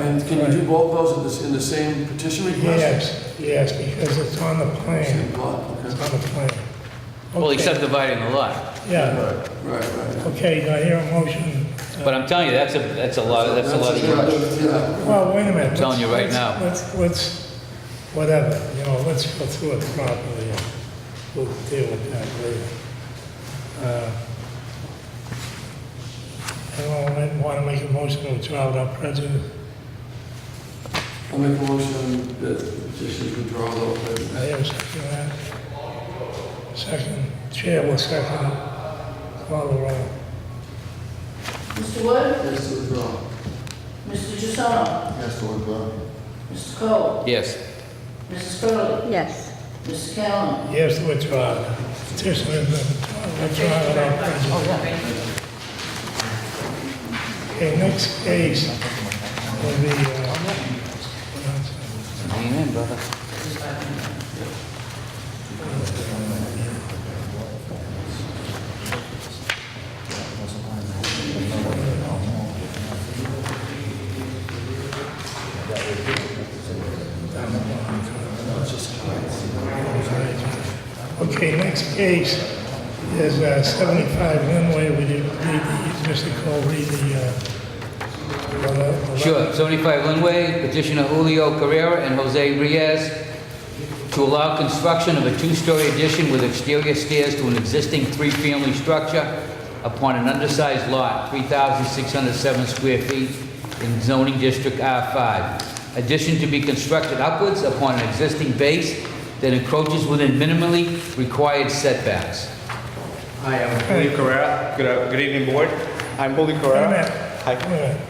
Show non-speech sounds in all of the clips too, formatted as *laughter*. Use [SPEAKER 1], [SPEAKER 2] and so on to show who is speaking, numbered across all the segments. [SPEAKER 1] And can you do both those in the, s- in the same petition request?
[SPEAKER 2] Yes, yes, because it's on the plan,
[SPEAKER 1] Same lot,
[SPEAKER 2] it's
[SPEAKER 1] okay.
[SPEAKER 2] on the plan.
[SPEAKER 3] Well,
[SPEAKER 2] Okay,
[SPEAKER 3] except dividing the lot.
[SPEAKER 2] Yeah,
[SPEAKER 1] Right, right, right.
[SPEAKER 2] okay, do I hear a motion? Uh,
[SPEAKER 3] But I'm telling you, that's a, that's a lot, Uh, that's a lot of work.
[SPEAKER 1] Yeah,
[SPEAKER 2] Well, wait a minute.
[SPEAKER 3] I'm telling you right
[SPEAKER 2] Let's-
[SPEAKER 3] now.
[SPEAKER 2] Let's, let's, whatever, you know, let's go through it properly. and We'll deal with that later. Uh, Anyone want to make a motion to withdraw without prejudice?
[SPEAKER 1] I'll make a motion that the petition is withdrawn without
[SPEAKER 2] I
[SPEAKER 1] prejudice.
[SPEAKER 2] have a second on that. Second, chair will second. Call the roll.
[SPEAKER 4] Mr. Wood?
[SPEAKER 1] Yes, to withdraw.
[SPEAKER 4] Mr. Jussono?
[SPEAKER 1] Yes, to withdraw.
[SPEAKER 4] Mr. Cole?
[SPEAKER 3] Yes,
[SPEAKER 4] Mrs. Curley?
[SPEAKER 5] Yes.
[SPEAKER 4] Mrs. Callen?
[SPEAKER 2] Yes, withdraw. Petition is withdrawn without prejudice. Okay, next case will be, uh,
[SPEAKER 3] lean in, brother.
[SPEAKER 2] okay, next case is uh, 75 Linway. Would you read the, Mr. Cole, read the, uh, the le- the
[SPEAKER 3] Sure, 75 Linway, petitioner Julio Carrera and Jose Reyes to allow construction of a two-story addition with exterior stairs to an existing three-family structure upon an undersized lot, 3,607 square feet in zoning district R5. Addition to be constructed upwards upon an existing base that encroaches within minimally required setbacks.
[SPEAKER 6] Hi, I'm Julio Correa. Good, uh, good evening, board. I'm Julio
[SPEAKER 2] Wait a
[SPEAKER 6] Correa.
[SPEAKER 2] minute.
[SPEAKER 6] Hi.
[SPEAKER 2] Wait a minute.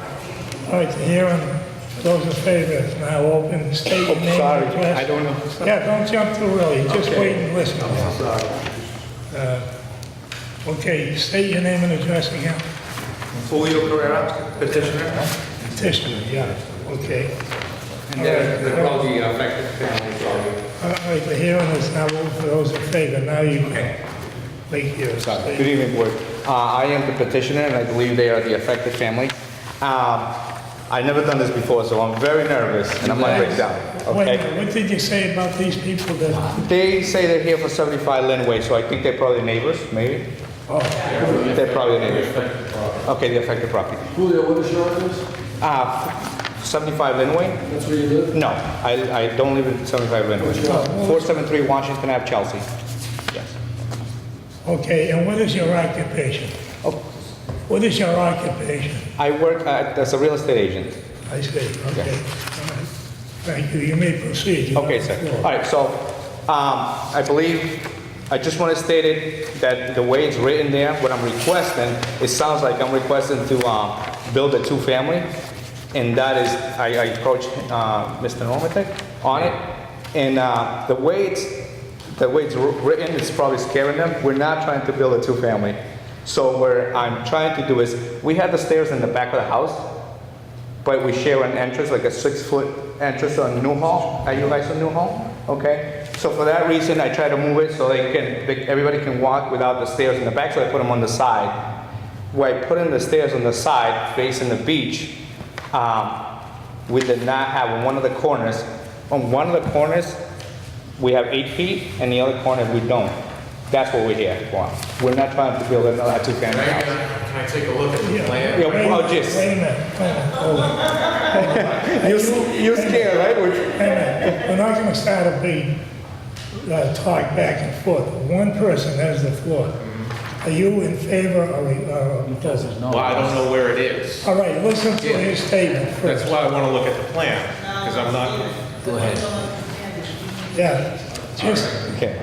[SPEAKER 2] All right, the hearing, those in favor, is now open, state your name. and
[SPEAKER 6] Oh, Sorry,
[SPEAKER 2] address.
[SPEAKER 6] I don't know.
[SPEAKER 2] Yeah, don't jump too early, just
[SPEAKER 6] Okay.
[SPEAKER 2] wait and listen. Uh, Okay, state your name and address again.
[SPEAKER 6] Julio Correa, petitioner.
[SPEAKER 2] Petitioner, yeah, okay.
[SPEAKER 6] And they're, they're all the affected families, sorry.
[SPEAKER 2] All right, the hearing is now open for those in favor, now you can make your
[SPEAKER 6] Sorry. Good
[SPEAKER 2] statement.
[SPEAKER 6] evening, board. Uh, I am the petitioner, and I believe they are the affected family. Um, I've never done this before, so I'm very nervous, and I'm gonna break down,
[SPEAKER 2] Wait a
[SPEAKER 6] okay?
[SPEAKER 2] minute, what did you say about these people that,
[SPEAKER 6] They say they're here for 75 Linway, so I think they're probably neighbors, maybe? Oh. They're probably neighbors. Okay, the affected property.
[SPEAKER 1] Julio, what is your address?
[SPEAKER 6] Uh, 75 Linway?
[SPEAKER 1] That's where you live?
[SPEAKER 6] No, I, I don't live in 75 Linwood. 473 Washington Ave, Chelsea. Yes.
[SPEAKER 2] okay, and what is your occupation?
[SPEAKER 6] Oh,
[SPEAKER 2] What is your occupation?
[SPEAKER 6] I work at- as a real estate agent.
[SPEAKER 2] I see,
[SPEAKER 6] Yeah.
[SPEAKER 2] okay. All right. Thank you, you may proceed. You
[SPEAKER 6] Okay,
[SPEAKER 2] have the
[SPEAKER 6] sir.
[SPEAKER 2] floor.
[SPEAKER 6] All right, so um, I believe, I just want to state it, that the way it's written there, what I'm requesting, it sounds like I'm requesting to um, build a two-family, and that is, I I approached uh, Mr. Normatek on it, and uh, the way it's, the way it's wr- written, it's probably scaring them. We're not trying to build a two-family. So what I'm trying to do is, we had the stairs in the back of the house, but we share an entrance, like a six-foot entrance on Newhall. Are you guys on Newhall? Okay. So for that reason, I try to move it so they can, they, everybody can walk without the stairs in the back. So I put them on the side. Where I put in the stairs on the side, facing the beach, um, we did not have on one of the corners. On one of the corners, we have eight feet, and the other corner we don't. That's what we're here for. We're not trying to build another two-family
[SPEAKER 7] Can I,
[SPEAKER 6] house.
[SPEAKER 7] can I take a look at the plan?
[SPEAKER 6] Yeah,
[SPEAKER 2] Wait a
[SPEAKER 6] well,
[SPEAKER 2] minute,
[SPEAKER 6] just-
[SPEAKER 2] Wait a minute, wait a minute, hold on.
[SPEAKER 6] *laughs*
[SPEAKER 2] Hold on.
[SPEAKER 6] You're, s- you're scared, right? We're-
[SPEAKER 2] Wait a minute, we're not gonna start a big, uh, talk back and forth. One person has the floor. Are you in favor or, or opposed?
[SPEAKER 7] Well, I don't know where it is.
[SPEAKER 2] All right, listen to his statement
[SPEAKER 7] That's
[SPEAKER 2] first.
[SPEAKER 7] why I want to look at the plan, because I'm not,
[SPEAKER 3] Go ahead.
[SPEAKER 2] Yeah, just,
[SPEAKER 6] Okay.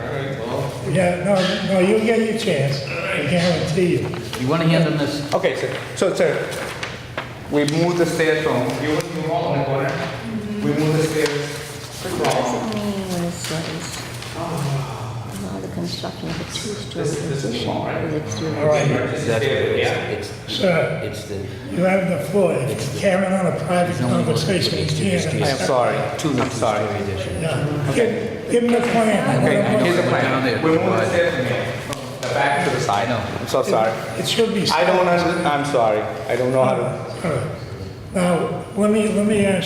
[SPEAKER 2] yeah, no, no, you get your chance, I guarantee you.
[SPEAKER 3] You want to hand them this?
[SPEAKER 6] Okay, sir. So, sir, we moved the stairs from, you were in the wall in the corner. We moved the stairs from,
[SPEAKER 5] Doesn't mean when it says, allow the construction of a two-story
[SPEAKER 6] This- this is
[SPEAKER 5] addition
[SPEAKER 6] small, right?
[SPEAKER 5] with exterior
[SPEAKER 2] All right.
[SPEAKER 6] This is stairs, yeah?
[SPEAKER 3] It's,
[SPEAKER 2] Sir.
[SPEAKER 3] it's the
[SPEAKER 2] You have the floor. If you're carrying on a private conversation, you
[SPEAKER 6] I
[SPEAKER 2] can't.
[SPEAKER 6] am sorry. I'm sorry.
[SPEAKER 2] Yeah. Give give him the plan.
[SPEAKER 6] Okay, here's the
[SPEAKER 3] Down there.
[SPEAKER 6] plan. We moved the stairs from here, from the back to the side. I'm so sorry.
[SPEAKER 2] It should be.
[SPEAKER 6] I don't under, I'm sorry. I don't know how to.
[SPEAKER 2] All right. Now, let me, uh, let me ask